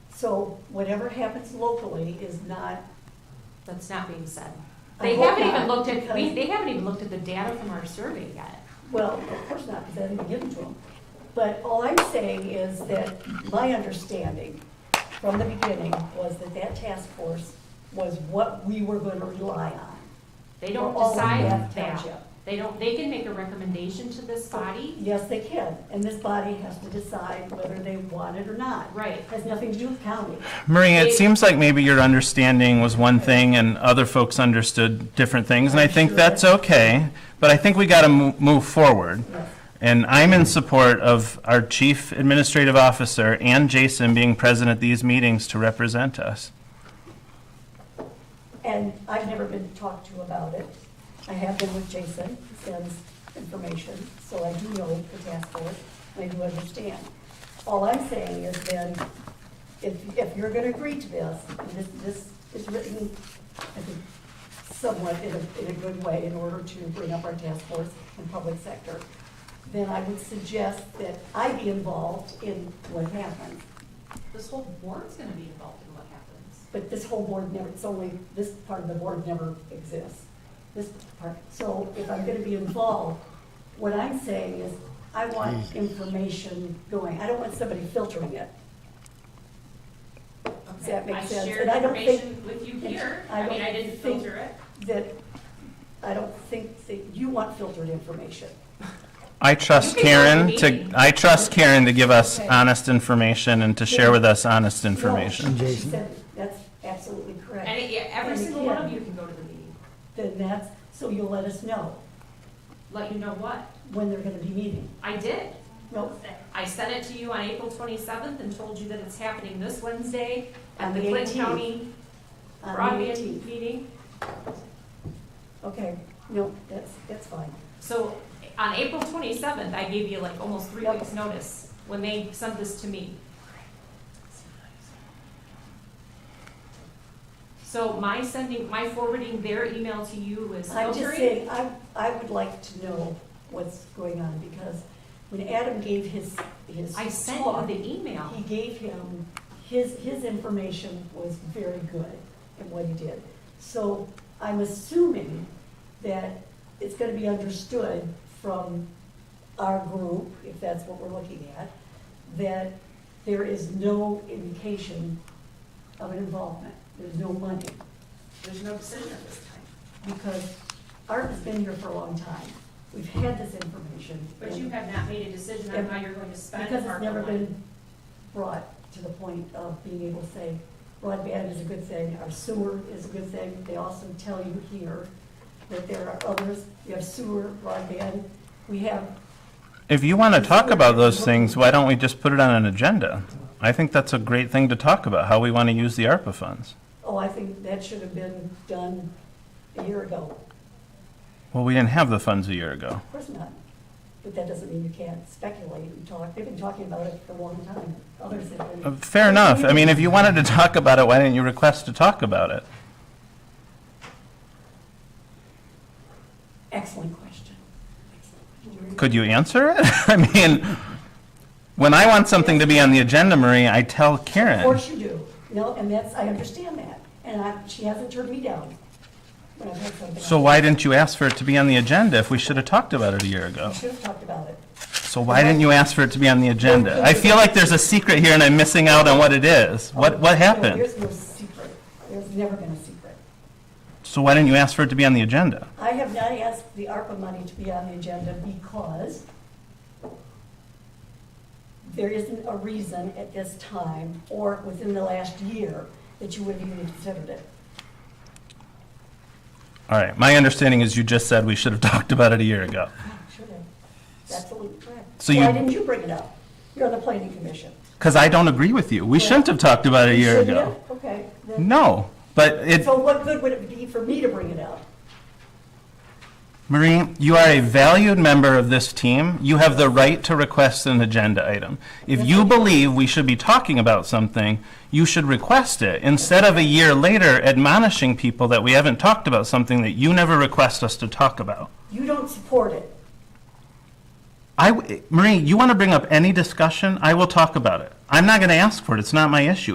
So whatever happens locally is not. That's not being said. I They hope haven't not, even looked at, we, because- they haven't even looked at the data from our survey yet. Well, of course not, because I didn't give them to them. But all I'm saying is that my understanding from the beginning was that that task force was what we were going to rely on. They don't For all of decide Bath that. Township. They don't, they can make a recommendation to this body. Yes, they can, and this body has to decide whether they want it or not. Right. Has nothing to do with county. Maria, They- it seems like maybe your understanding was one thing and other folks understood different things, and I think Sure. that's okay, but I think we got to move forward. Yes. And I'm in support of our chief administrative officer and Jason being present at these meetings to represent us. And I've never been talked to about it. I have been with Jason, he sends information, so I do know the task force, and I do understand. All I'm saying is then, if, if you're gonna agree to this, and this, this is written, I think, somewhat in a, in a good way in order to bring up our task force and public sector, then I would suggest that I be involved in what happens. This whole board's gonna be involved in what happens. But this whole board never, it's only, this part of the board never exists. This part, so if I'm gonna be involved, what I'm saying is, I want information going, I don't want somebody filtering it. Does that make sense? I shared And I don't think- information with you here. I I mean, don't I didn't think- filter it. That, I don't think that you want filtered information. I trust You can go to Karen the to, meeting. I trust Karen to give us Okay. honest information and to share with us honest information. No, she Jason? said, that's absolutely correct. And it- yeah, every And you single one can. of you can go to the meeting. Then that's, so you'll let us know Let you know what? when they're gonna be meeting. I did. No, I sent it to you on April twenty-seventh and told you that it's happening this Wednesday at On the the Clinton 18th. County on the Broadband 18th. Meeting. Okay, no, that's, that's fine. So on April twenty-seventh, I gave you like almost three Yep. weeks' notice when they sent this to me. So my sending, my forwarding their email to you was I'm just filtering. saying, I, I would like to know what's going on, because when Adam gave his, his I sent you talk, the email. he gave him, his, his information was very good in what he did. So I'm assuming that it's gonna be understood from our group, if that's what we're looking at, that there is no indication of an involvement, there's no money There's no decision at this time. because Art has been here for a long time. We've had this information. But you and- have not made a decision on And- how you're going to spend Because ARPA it's never money. been brought to the point of being able to say broadband is a good thing, our sewer is a good thing. They also tell you here that there are others, you have sewer, broadband, we have, If you want to talk about those things, why don't we just put it on an agenda? I think that's a great thing to talk about, how we want to use the ARPA funds. oh, I think that should have been done a year ago. Well, we didn't have the funds a year ago. Of course not. But that doesn't mean you can't speculate and talk. They've been talking about it for a long time. Others have Uh, been. Fair enough. I mean, if you wanted to talk about it, why didn't you request to talk about it? Excellent question. Excellent question. Could you answer it? I mean, when I want something to be on the agenda, Marie, I tell Of Karen. course you do. No, and that's, I understand that. And I, she hasn't turned me down when I've had something. So why didn't you ask for it to be on the agenda if we should have talked about it a year ago? We should have talked about it. So why didn't you ask for it to be on the agenda? I feel like there's a secret here and I'm missing out on what it is. What, what No, happened? There's no secret. There's never been a secret. So why didn't you ask for it to be on the agenda? I have not asked the ARPA money to be on the agenda because there isn't a reason at this time or within the last year that you would have even considered it. All right, my understanding is you just said we should have talked about it a year ago. Should have. That's Absolutely correct. So Why you- didn't you bring it up? You're on the planning commission. Because I don't agree with you. We shouldn't have talked about it a year Shouldn't ago. you? Okay. then- No, but it, So what good would it be for me to bring it up? Marie, you are a valued member of this team. You have the right to request an agenda item. If you believe we should be talking about something, you should request it, instead of a year later admonishing people that we haven't talked about something that you never request us to talk about. You don't support it. I w Marie, you want to bring up any discussion, I will talk about it. I'm not going to ask for it, it's not my issue.